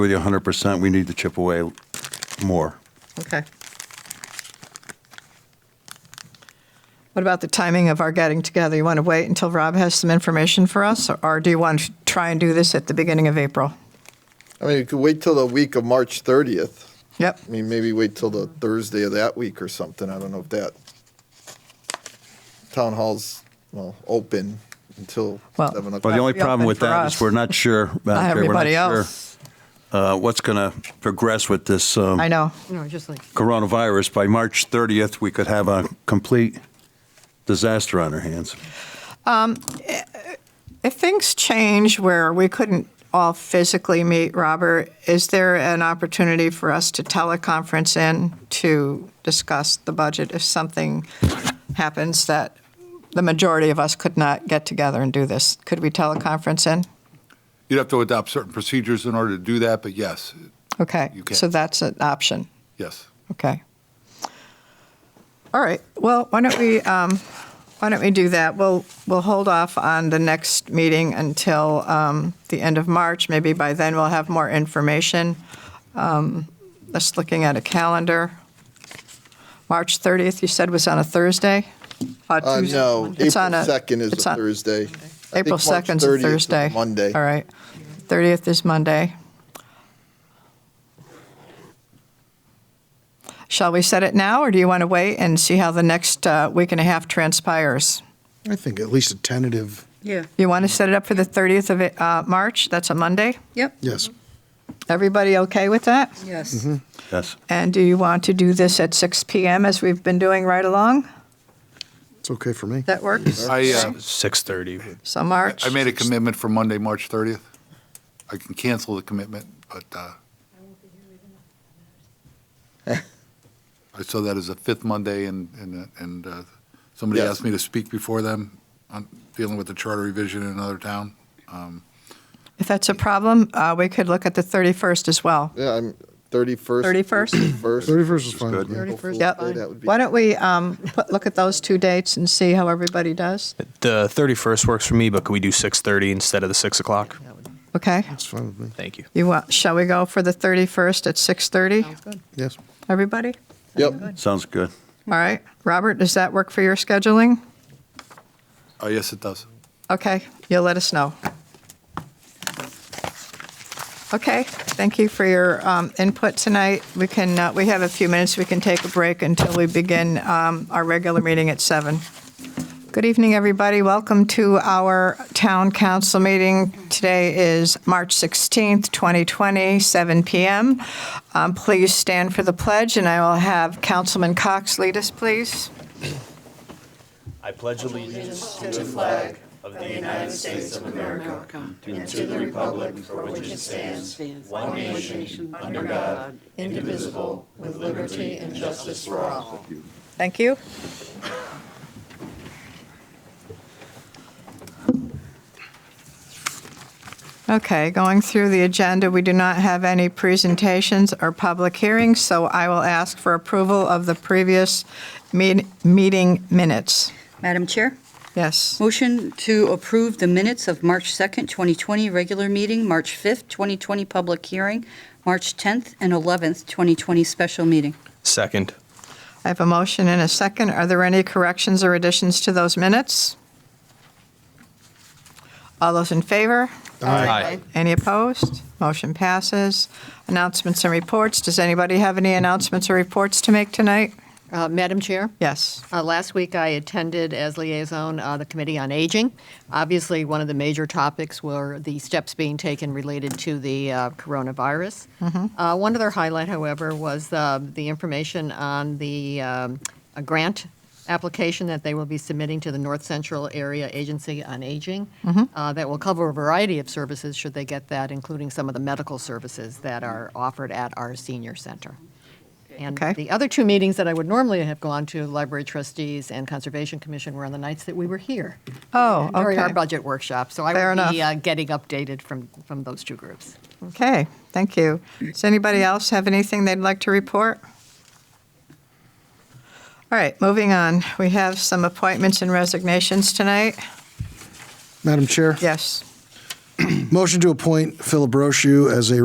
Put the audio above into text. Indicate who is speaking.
Speaker 1: with you 100%. We need to chip away more.
Speaker 2: Okay. What about the timing of our getting together? You want to wait until Rob has some information for us, or- or do you want to try and do this at the beginning of April?
Speaker 3: I mean, you could wait till the week of March 30th.
Speaker 2: Yep,
Speaker 3: I mean, maybe wait till
Speaker 2: Mm-hmm.
Speaker 3: the Thursday of that week or something. I don't know if that town hall's, well, open until
Speaker 2: Well-
Speaker 3: 7 o'clock.
Speaker 1: Well, the only
Speaker 2: That'd be
Speaker 1: problem
Speaker 2: open
Speaker 1: with
Speaker 2: for
Speaker 1: that
Speaker 2: us.
Speaker 1: is we're not sure, Madam
Speaker 2: not
Speaker 1: Chair, we're
Speaker 2: everybody
Speaker 1: sure,
Speaker 2: else.
Speaker 1: uh, what's going to progress with this um,
Speaker 2: I know.
Speaker 4: No, just like,
Speaker 1: coronavirus. By March 30th, we could have a complete disaster on our hands.
Speaker 2: If things change where we couldn't all physically meet, Robert, is there an opportunity for us to teleconference in to discuss the budget if something happens that the majority of us could not get together and do this? Could we teleconference in?
Speaker 5: You'd have to adopt certain procedures in order to do that, but yes,
Speaker 2: Okay,
Speaker 5: You can.
Speaker 2: so that's an option.
Speaker 5: yes.
Speaker 2: Okay. All right, well, why don't we, um, why don't we do that? We'll, we'll hold off on the next meeting until um, the end of March. Maybe by then we'll have more information. Um, Just looking at a calendar. March 30th, you said was on a Thursday? Uh,
Speaker 3: Uh,
Speaker 2: Tuesday?
Speaker 3: no, April
Speaker 2: It's on a-
Speaker 3: 2nd is
Speaker 2: it's
Speaker 3: a
Speaker 2: on-
Speaker 3: Thursday. I think
Speaker 2: April
Speaker 3: March
Speaker 2: 2nd is
Speaker 3: 30th
Speaker 2: a
Speaker 3: is
Speaker 2: Thursday.
Speaker 3: Monday.
Speaker 2: All right. 30th is Monday. Shall we set it now, or do you want to wait and see how the next uh, week and a half transpires?
Speaker 6: I think at least a tentative,
Speaker 4: yeah,
Speaker 2: You want to set it up for the 30th of uh, March? That's a Monday?
Speaker 4: yep,
Speaker 6: yes.
Speaker 2: Everybody okay with that?
Speaker 4: yes.
Speaker 1: Yes.
Speaker 2: And do you want to do this at 6 PM as we've been doing right along?
Speaker 6: It's okay for me.
Speaker 2: That works?
Speaker 5: I, uh,
Speaker 2: Okay.
Speaker 7: 6:30.
Speaker 2: So March?
Speaker 5: I made a commitment for Monday, March 30th. I can cancel the commitment, but uh, I saw that as a fifth Monday, and, and and uh, somebody
Speaker 3: Yes.
Speaker 5: asked me to speak before them on dealing with the charter revision in another town. Um,
Speaker 2: If that's a problem, uh, we could look at the 31st as well.
Speaker 3: Yeah, I'm 31st.
Speaker 2: 31st?
Speaker 3: 31st.
Speaker 6: 31st is fine.
Speaker 1: good.
Speaker 6: with me.
Speaker 3: April
Speaker 4: 31st
Speaker 3: Fool's
Speaker 2: Yep.
Speaker 3: Day, that would be-
Speaker 2: Why don't we um, put- look at those two dates and see how everybody does?
Speaker 7: The 31st works for me, but can we do 6:30 instead of the 6 o'clock?
Speaker 2: Okay.
Speaker 6: It's fine with me,
Speaker 7: Thank you.
Speaker 2: You want, shall we go for the 31st at 6:30?
Speaker 6: yes.
Speaker 2: Everybody?
Speaker 3: Yep,
Speaker 1: Sounds good.
Speaker 2: All right. Robert, does that work for your scheduling?
Speaker 5: Oh, yes, it does.
Speaker 2: Okay, you'll let us know. Okay, thank you for your um, input tonight. We can, uh, we have a few minutes, we can take a break until we begin um, our regular meeting at seven. Good evening, everybody. Welcome to our town council meeting. Today is March 16th, 2020, 7 PM. Um, Please stand for the pledge, and I will have Councilman Cox lead us, please. Thank you. Okay, going through the agenda, we do not have any presentations or public hearings, so I will ask for approval of the previous meet- meeting minutes.
Speaker 4: Madam Chair,
Speaker 2: Yes,
Speaker 4: motion to approve the minutes of March 2nd, 2020, regular meeting, March 5th, 2020, public hearing, March 10th and 11th, 2020, special meeting.
Speaker 7: Second.
Speaker 2: I have a motion and a second. Are there any corrections or additions to those minutes? All those in favor?
Speaker 7: Aye.
Speaker 2: Any opposed? Motion passes. Announcements and reports. Does anybody have any announcements or reports to make tonight?
Speaker 8: Uh, Madam Chair,
Speaker 2: Yes.
Speaker 8: uh, last week I attended as liaison uh, the Committee on Aging. Obviously, one of the major topics were the steps being taken related to the uh, coronavirus. Uh, One other highlight, however, was uh, the information on the um, a grant application that they will be submitting to the North Central Area Agency on Aging uh, that will cover a variety of services, should they get that, including some of the medical services that are offered at our senior center. And
Speaker 2: Okay.
Speaker 8: the other two meetings that I would normally have gone to, Library Trustees and Conservation Commission, were on the nights that we were here.
Speaker 2: Oh,
Speaker 8: During our
Speaker 2: okay.
Speaker 8: budget workshop, so
Speaker 2: Fair
Speaker 8: I would be
Speaker 2: enough.
Speaker 8: uh, getting updated from, from those two groups.
Speaker 2: Okay, thank you. Does anybody else have anything they'd like to report? All right, moving on. We have some appointments and resignations tonight.
Speaker 6: Madam Chair?
Speaker 2: Yes.
Speaker 6: Motion to appoint Philip Brochu as a